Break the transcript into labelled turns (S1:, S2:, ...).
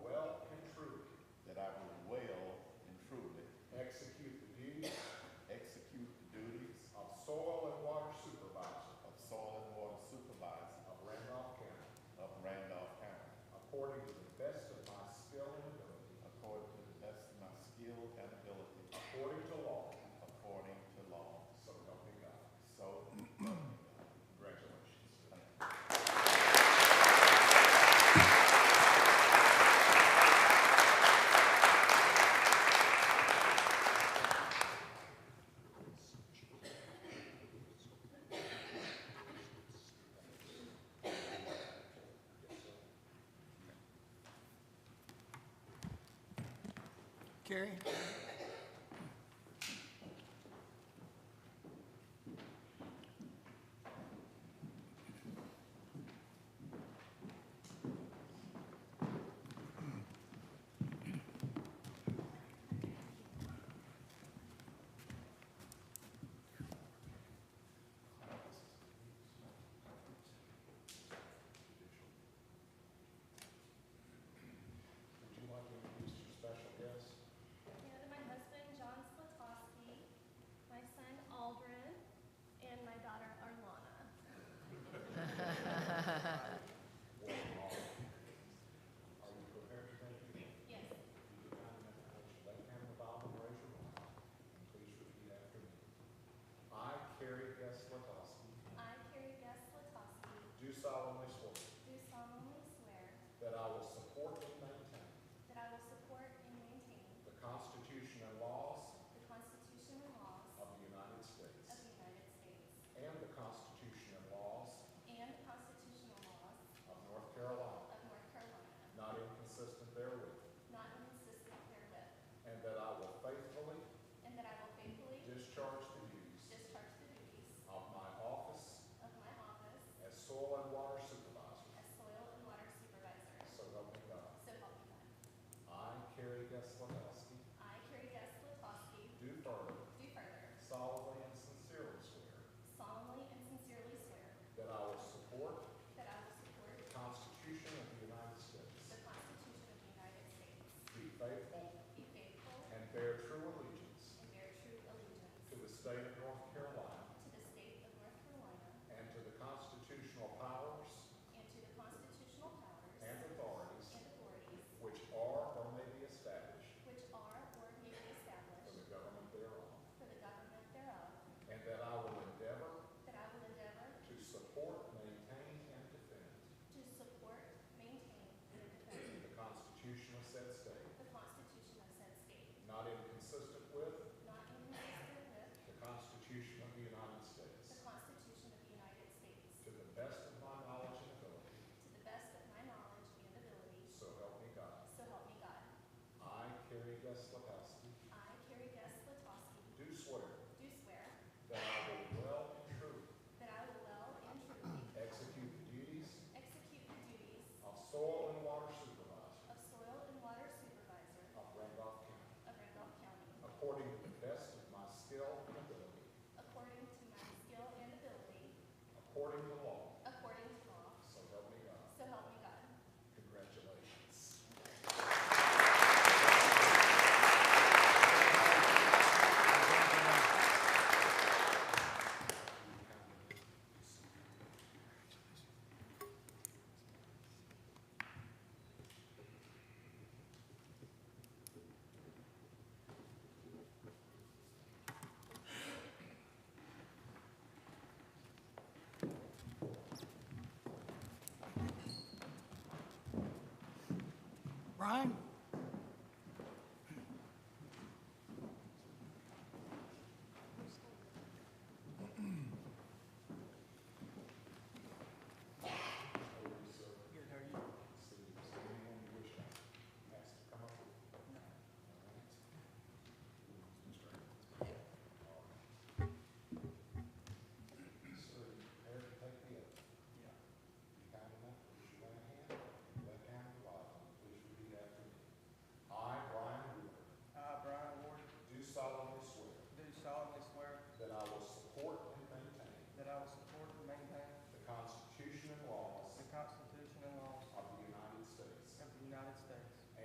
S1: Carrie?
S2: Would you like to introduce your special guest?
S3: And my husband, John Slatowski, my son, Aldrin, and my daughter, Arlana.
S2: Are you prepared to make your name?
S3: Yes.
S2: If you could kindly put your left hand on the Bible and raise your right, and please repeat after me. I, Carrie S. Latowski,
S3: I, Carrie Guest Slatowski,
S2: do solemnly swear
S3: do solemnly swear
S2: that I will support and maintain
S3: that I will support and maintain
S2: the Constitution and laws
S3: the Constitution and laws
S2: of
S3: of
S2: the United
S3: the
S2: States
S3: United States
S2: and the Constitution and laws
S3: and the constitutional laws
S2: of North Carolina,
S3: of North Carolina,
S2: not inconsistent therewith,
S3: not inconsistent therewith,
S2: and that I will faithfully
S3: and that I will faithfully
S2: discharge the duties
S3: discharge the duties
S2: of my office
S3: of my office
S2: As soil and water supervisor,
S3: as soil and water supervisor.
S2: so help me God.
S3: So help me God.
S2: I, Carrie Gaslowski,
S3: I, Carrie Guest Slatowski,
S2: do further
S3: Do further
S2: solemnly and sincerely swear
S3: solemnly and sincerely swear
S2: that I will support
S3: that I will
S2: the
S3: support
S2: Constitution of the United
S3: the
S2: States,
S3: Constitution of the United States,
S2: be faithful,
S3: be faithful,
S2: and bear true allegiance
S3: and bear true allegiance
S2: to the state of North Carolina
S3: to the state of North Carolina
S2: and to the constitutional powers
S3: and to the constitutional powers
S2: and
S3: and
S2: authorities
S3: authorities
S2: which are or may be established
S3: which are or may be
S2: for
S3: established
S2: the government thereof,
S3: for the government thereof,
S2: and that I will endeavor
S3: that I will endeavor
S2: to support, maintain, and defend
S3: to support, maintain, and defend
S2: The Constitution of said state,
S3: the Constitution of said state,
S2: not inconsistent with
S3: not inconsistent with
S2: the Constitution of the United
S3: the
S2: States,
S3: Constitution of the United States,
S2: to the best of my knowledge and ability,
S3: to the best of my knowledge and ability,
S2: so help me God.
S3: So help me God.
S2: I, Carrie Guslepowski,
S3: I, Carrie Guest Latowski,
S2: do swear
S3: do swear
S2: that I will well and truly
S3: that I will well and truly
S2: execute the duties
S3: execute the duties
S2: of soil and water supervisor
S3: of soil and water supervisor
S2: of Randolph County,
S3: of Randolph County
S2: according to the best of my skill and ability,
S3: according to my skill and ability,
S2: according to law,
S3: according to law.
S2: so help me God.
S3: So help me God.
S2: Congratulations.
S1: Brian?